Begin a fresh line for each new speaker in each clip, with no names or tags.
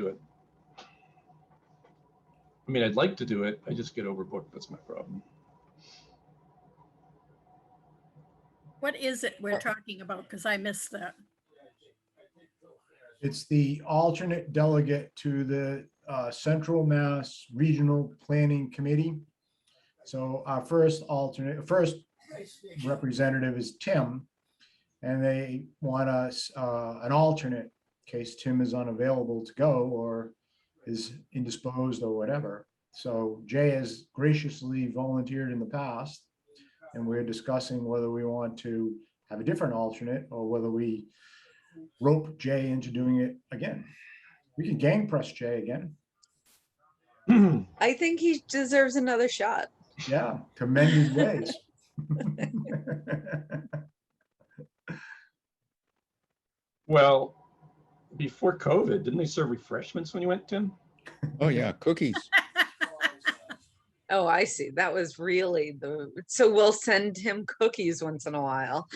do it. I mean, I'd like to do it. I just get overbooked. That's my problem.
What is it we're talking about? Because I missed that.
It's the alternate delegate to the uh, Central Mass Regional Planning Committee. So our first alternate, first representative is Tim. And they want us, uh, an alternate, in case Tim is unavailable to go or is indisposed or whatever. So Jay has graciously volunteered in the past. And we're discussing whether we want to have a different alternate or whether we rope Jay into doing it again. We can gang press Jay again.
I think he deserves another shot.
Yeah, commend his ways.
well, before COVID, didn't they serve refreshments when you went, Tim?
Oh,
Mm-hmm.
yeah, cookies.
Oh, I see. That was really the, so we'll send him cookies once in a while.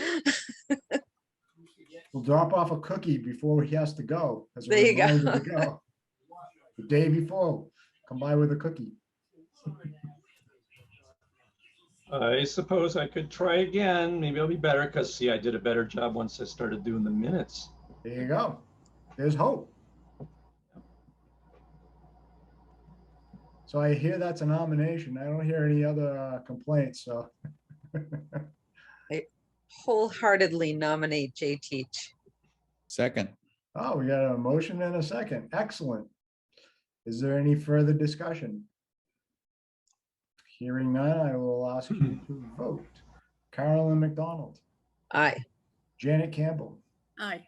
We'll drop off a cookie before he has to go. as a
There you go.
reminder to go. The day before, come by with a cookie.
I suppose I could try again. Maybe I'll be better because, see, I did a better job once I started doing the minutes.
There you go. There's hope. So I hear that's a nomination. I don't hear any other uh, complaints, so.
Wholeheartedly nominate Jay Teach.
Second,
Oh, we got a motion and a second. Excellent. Is there any further discussion? Hearing none, I will ask you to vote. Carolyn McDonald,
Aye.
Janet Campbell,
Aye.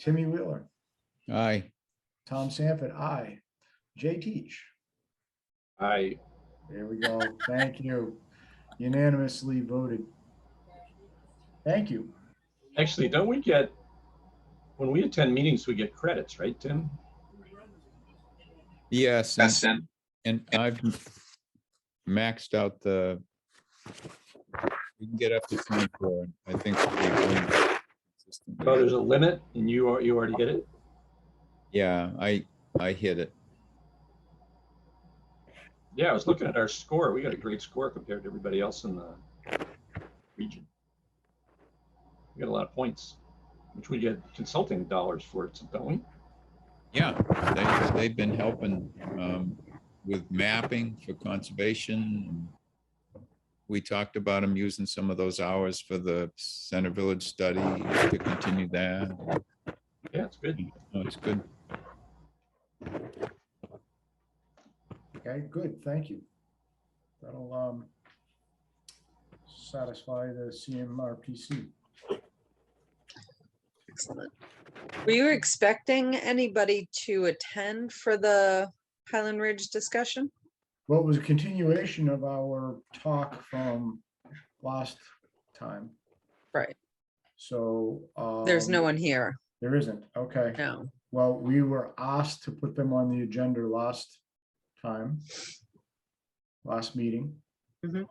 Timmy Wheeler,
aye.
Tom Sanford, I, Jay Teach.
I,
There we go. Thank you. Unanimously voted. Thank you.
actually, don't we get, when we attend meetings, we get credits, right, Tim?
Yes, and- and I've maxed out the. You can get up to twenty-four, and I think. we'll be going consistently.
Oh, there's a limit and you are, you already hit it?
Yeah, I, I hit it.
Yeah, I was looking at our score. We got a great score compared to everybody else in the region. We got a lot of points, which we get consulting dollars for, don't we?
Yeah, they, they've been helping um, with mapping for conservation. We talked about them using some of those hours for the Center Village study to continue that.
Yeah, it's good.
No, It's good.
Okay, good, thank you. That'll um satisfy the CMRPC.
Excellent. Were you expecting anybody to attend for the Highland Ridge discussion?
Well, it was a continuation of our talk from last time.
Right.
So.
There's no
um,
one here.
There isn't, okay.
No.
Well, we were asked to put them on the agenda last time, last meeting.
Mhm.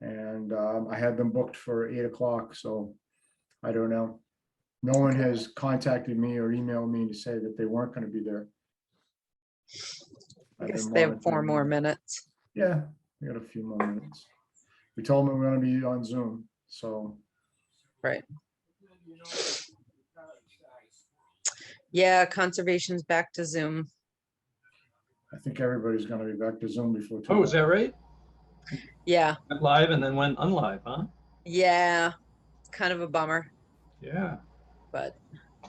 And um, I had them booked for eight o'clock, so I don't know. No one has contacted me or emailed me to say that they weren't going to be there.
I
I've
guess
been
they have four
monitoring
more
them.
minutes.
Yeah, we got a few more minutes. We told them we're gonna be on Zoom, so
Yeah, conservation's back to Zoom.
I think everybody's gonna be back to Zoom before. too
Oh, is
long.
that right?
Yeah,
Went Live and then went unlive, huh?
yeah. It's kind of a bummer.
Yeah.
but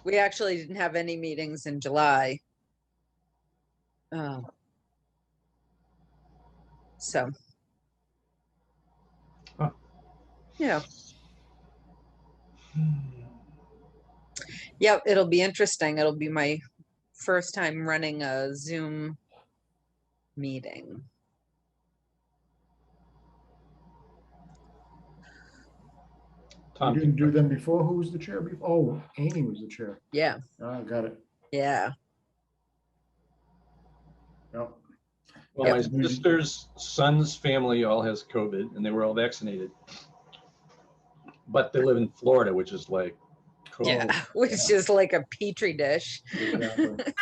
we actually didn't have any meetings in July. Uh, So.
Huh.
Yeah, yeah, it'll be interesting. It'll be my first time running a Zoom meeting.
We
Tom,
didn't do them before. Who was the chair? before? Oh, Amy was the chair.
Yeah,
Ah, got it.
yeah.
Yep.
well, my
Yep.
sister's son's family all has COVID and they were all vaccinated. But they live in Florida, which is like.
Yeah,
COVID.
which is like a petri dish.
exactly.